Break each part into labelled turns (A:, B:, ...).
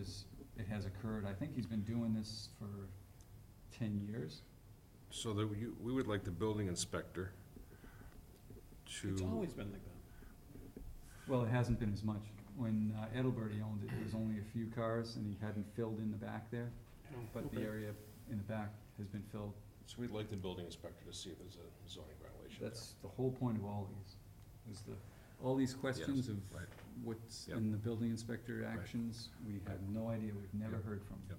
A: is, it has occurred, I think he's been doing this for ten years.
B: So that you, we would like the building inspector
C: It's
B: to,
C: always been like that.
A: Well, it hasn't been as much. When uh, Edelbert, he owned it, there was only a few cars and he hadn't filled in the back there, but the
C: Okay.
A: area in the back has been filled.
B: so we'd like the building inspector to see if there's a zoning violation there.
A: That's the whole point of all these, is the, all these questions of
B: right.
A: what's
B: Yep.
A: in the building inspector actions, we have no idea, we've never
B: Yep.
A: heard from him.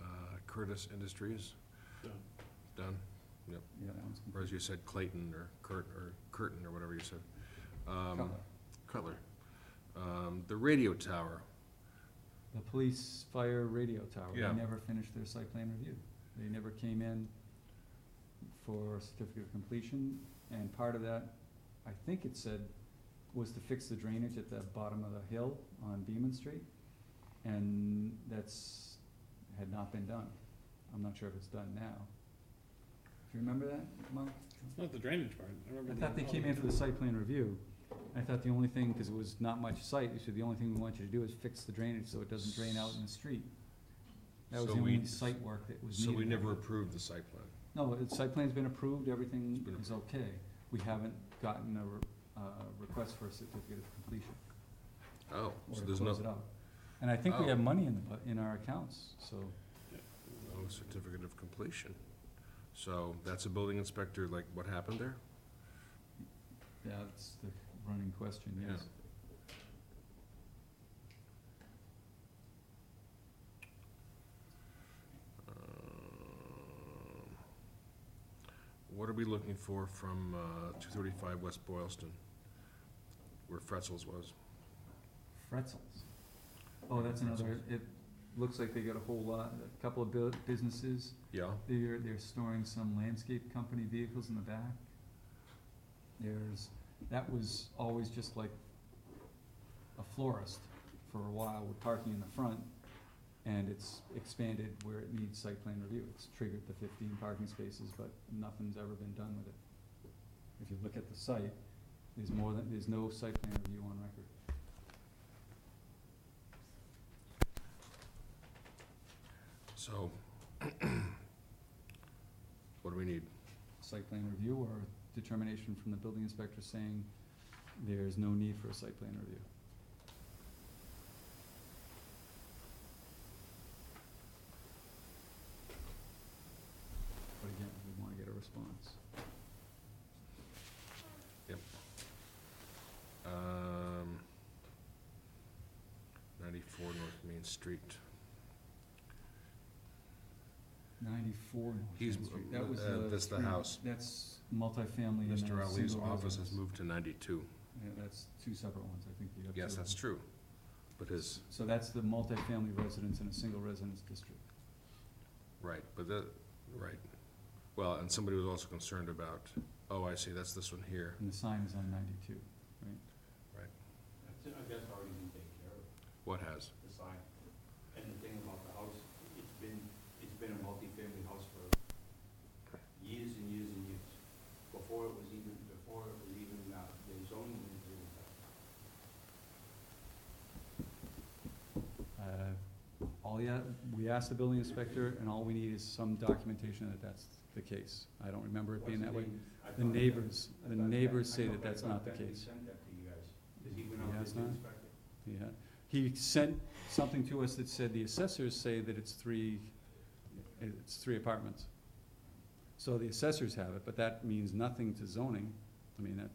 B: Uh, Curtis Industries,
C: Done.
B: done,
A: Yeah, that one's
B: or as
A: complete.
B: you said, Clayton or Curt, or Curtin, or whatever you said. Um,
A: Cutler.
B: Cutler. Um, the radio tower,
A: The police fire radio tower,
B: Yeah.
A: they never finished their site plan review. They never came in for a certificate of completion, and part of that, I think it said, was to fix the drainage at the bottom of the hill on Beaman Street, and that's, had not been done. I'm not sure if it's done now. Do you remember that, Mark?
C: It's not the drainage part. I remember.
A: I
C: the-
A: thought they came in for the site plan review. I thought the only thing, cause it was not much site, they said the only thing we want you to do is fix the drainage so it doesn't drain out in the street. That was
B: So
A: the only
B: we-
A: site work that was
B: so
A: needed.
B: we never approved the site plan.
A: No, the site plan's been approved, everything
B: It's been
A: is okay. We haven't gotten a, re- uh, request for a certificate of completion
B: Oh,
A: or
B: so
A: to
B: there's
A: close
B: no,
A: it out. And I think we
B: Oh.
A: have money in the, bu- in our accounts, so
B: no certificate of completion. So that's a building inspector, like what happened there?
A: that's the running question,
B: Yeah.
A: yes.
B: Um, What are we looking for from uh, two thirty-five West Boylston, where Fretzels was?
A: Fretzels. Oh, that's another, it looks like they got a whole lot, a couple of bu- businesses.
B: Yeah,
A: They're, they're storing some landscape company vehicles in the back. There's, that was always just like a florist for a while with parking in the front. And it's expanded where it needs site plan review. It's triggered the fifteen parking spaces, but nothing's ever been done with it. If you look at the site, there's more than, there's no site plan review on record.
B: so. What do we need?
A: site plan review or determination from the building inspector saying there's no need for a site plan review. But again, we wanna get a response.
B: Um, ninety-four North Main Street.
A: Ninety-four North Main
B: He's-
A: Street, that was
B: uh,
A: the.
B: that's the
A: three-
B: house.
A: That's multifamily and a
B: Mr. Ali's
A: single
B: office has
A: residence.
B: moved to ninety-two.
A: Yeah, that's two separate ones, I think you have two.
B: Yes,
A: of
B: that's
A: them.
B: true. But his,
A: So that's the multifamily residence in a single residence district.
B: right, but that, right. Well, and somebody was also concerned about, oh, I see, that's this one here.
A: And the sign is on ninety-two.
D: That's, I guess, already been taken care of,
B: What has?
D: the sign. And the thing about the house, it's been, it's been a multifamily house for years and years and years. Before it was even, before it was even, uh, the zoning was even, uh,
A: Uh, All yeah, we asked the building inspector, and all we need is some documentation that that's the case. I don't remember it being that way. The neighbors, the neighbors say that that's not the case.
D: I thought that, I thought that he sent that to you guys, 'cause he went
A: He
D: out there
A: has
D: to
A: not?
D: inspect it.
A: Yeah, he sent something to us that said the assessors say that it's three, it's three apartments. So the assessors have it, but that means nothing to zoning. I mean, that,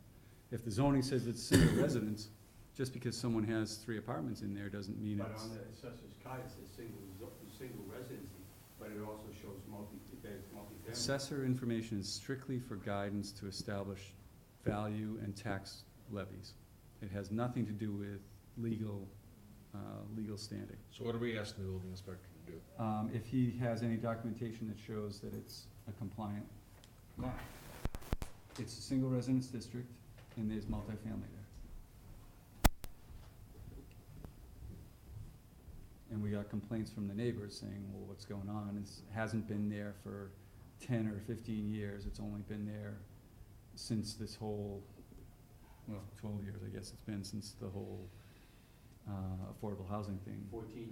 A: if the zoning says it's single residence, just because someone has three apartments in there doesn't mean
D: But
A: it's.
D: on the assessor's card, it says single, zo- single residency, but it also shows multi, there's multifamily.
A: Assessor information is strictly for guidance to establish value and tax levies. It has nothing to do with legal, uh, legal standing.
B: So what are we asking the building inspector to do?
A: Um, if he has any documentation that shows that it's a compliant lot. It's a single residence district and there's multifamily there. And we got complaints from the neighbors saying, well, what's going on? It hasn't been there for ten or fifteen years. It's only been there since this whole, well, twelve years, I guess it's been since the whole, uh, affordable housing thing
D: Fourteen